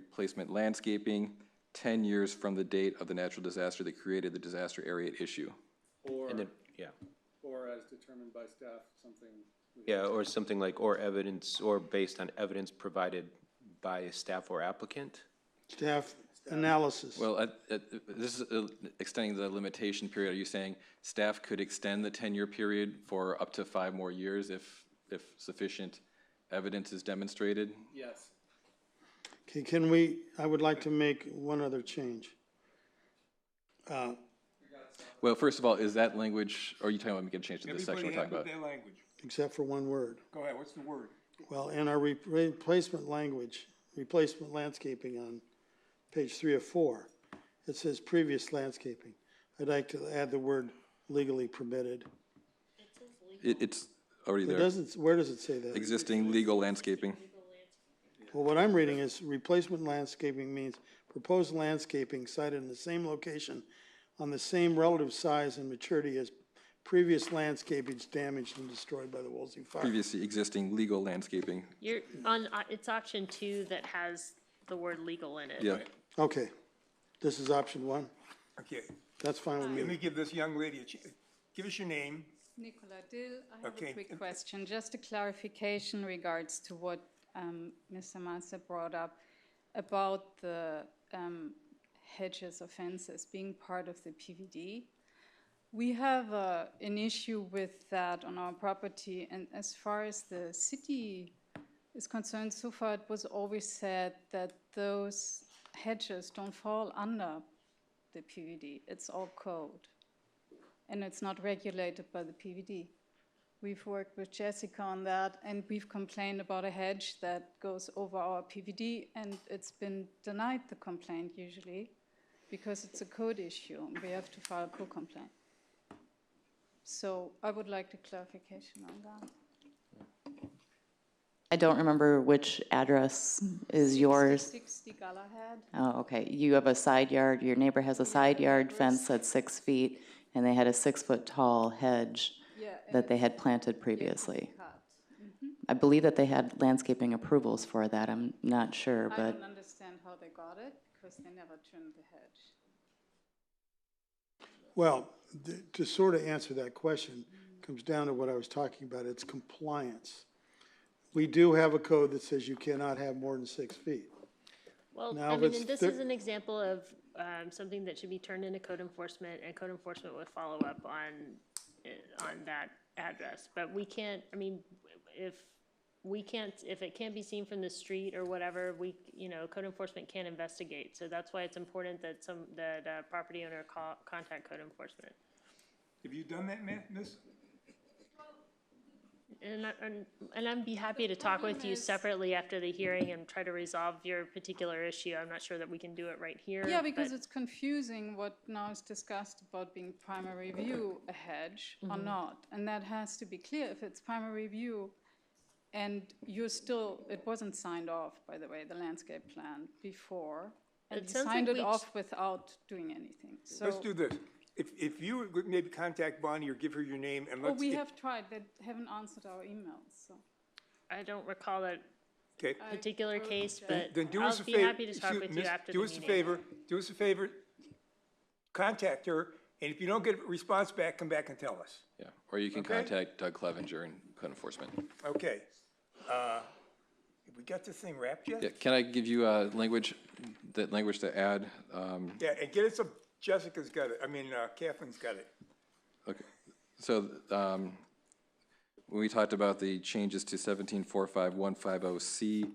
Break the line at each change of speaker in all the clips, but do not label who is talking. replacement landscaping 10 years from the date of the natural disaster that created the disaster area at issue.
Or,
And then, yeah,
or as determined by staff, something. we-
yeah, or something like, or evidence, or based on evidence provided by staff or applicant?
Staff analysis.
Well, I- I- this is uh, extending the limitation period. Are you saying staff could extend the 10-year period for up to five more years if, if sufficient evidence is demonstrated?
Yes,
Okay, can we, I would like to make one other change.
Well, first of all, is that language, or are you talking about making a change to this section
Everybody
we're talking
have
about?
their language.
except for one word.
Go ahead, what's the word?
Well, in our re- replacement language, replacement landscaping on page three of four, it says previous landscaping. I'd like to add the word legally permitted.
It, it's already
It
there.
doesn't, where does it say that?
Existing legal landscaping.
Well, what I'm reading is replacement landscaping means proposed landscaping sited in the same location on the same relative size and maturity as previous landscaping damaged and destroyed by the Wolsey fire.
Previously existing legal landscaping.
You're on, uh, it's option two that has the word legal in it.
Yeah.
Okay, this is option one.
Okay,
That's fine with me.
let me give this young lady a chance. Give us your name.
Nicola Dill, I have
Okay.
a quick question, just a clarification regards to what um, Mr. Massa brought up about the um, hedges or fences being part of the PVD. We have uh, an issue with that on our property, and as far as the city is concerned, so far it was always said that those hedges don't fall under the PVD, it's all code and it's not regulated by the PVD. We've worked with Jessica on that, and we've complained about a hedge that goes over our PVD, and it's been denied the complaint usually, because it's a code issue, and we have to file a co-complaint. So I would like the clarification on that.
I don't remember which address is yours.
Sixty Galahad,
Oh, okay. You have a side yard, your neighbor has a side yard fence that's six feet, and they had a six-foot-tall hedge
yeah. and
that they
it's
had planted previously.
cut.
I believe that they had landscaping approvals for that. I'm not sure,
I
but
don't understand how they got it, because they never trimmed the hedge.
Well, th- to sort of answer that question, comes down to what I was talking about, it's compliance. We do have a code that says you cannot have more than six feet.
Well,
Now
I mean,
it's
and this
thir-
is an example of, um, something that should be turned into code enforcement, and code enforcement would follow up on, eh, on that address. But we can't, I mean, if, we can't, if it can't be seen from the street or whatever, we, you know, code enforcement can't investigate. So that's why it's important that some, that, uh, property owner call, contact code enforcement.
Have you done that, ma- miss?
And, I- and, and I'd be happy to talk with you separately after the hearing and try to resolve your particular issue. I'm not sure that we can do it right here.
Yeah, because
but-
it's confusing what now is discussed about being primary view a hedge or
Mm-hmm.
not. And that has to be clear. If it's primary view and you're still, it wasn't signed off, by the way, the landscape plan before.
It
And you
sounds like
signed it
we
off without doing anything, so.
Let's do this. If, if you would maybe contact Bonnie or give her your name and
Oh,
Well,
let's.
we
get-
have tried, they haven't answered our emails, so.
I don't recall that
Okay,
particular case, but
then do
uh, I'll
us a
be
favor.
happy to talk
excuse-
with you
miss,
after the
Do us a
meeting.
favor, do us a favor. Contact her, and if you don't get a response back, come back and tell us.
Yeah. Or you can
Okay.
contact Doug Clevenger in code enforcement.
Okay. Uh, Have we got this thing wrapped yet?
Yeah, Can I give you, uh, language, that language to add? Um,
Yeah, and get us a, Jessica's got it, I mean, uh, Catherine's got it.
Okay, so, um, when we talked about the changes to seventeen four five one five oh C,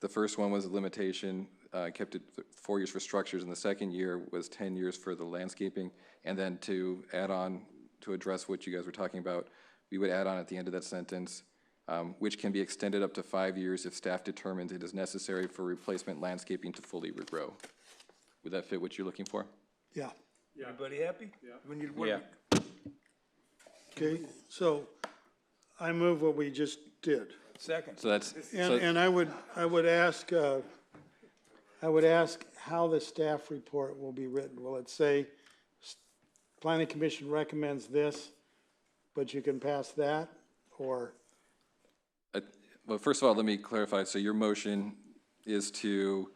the first one was a limitation, uh, kept it th- four years for structures, and the second year was ten years for the landscaping. And then to add on, to address what you guys were talking about, we would add on at the end of that sentence, um, which can be extended up to five years if staff determines it is necessary for replacement landscaping to fully regrow. Would that fit what you're looking for?
Yeah,
Everybody happy? Yeah. We need one.
Yeah.
okay, so I move what we just did.
Second.
So that's.
And,
so-
and I would, I would ask, uh, I would ask how the staff report will be written. Will it say, s- planning commission recommends this, but you can pass that? Or,
I- Well, first of all, let me clarify. So your motion is to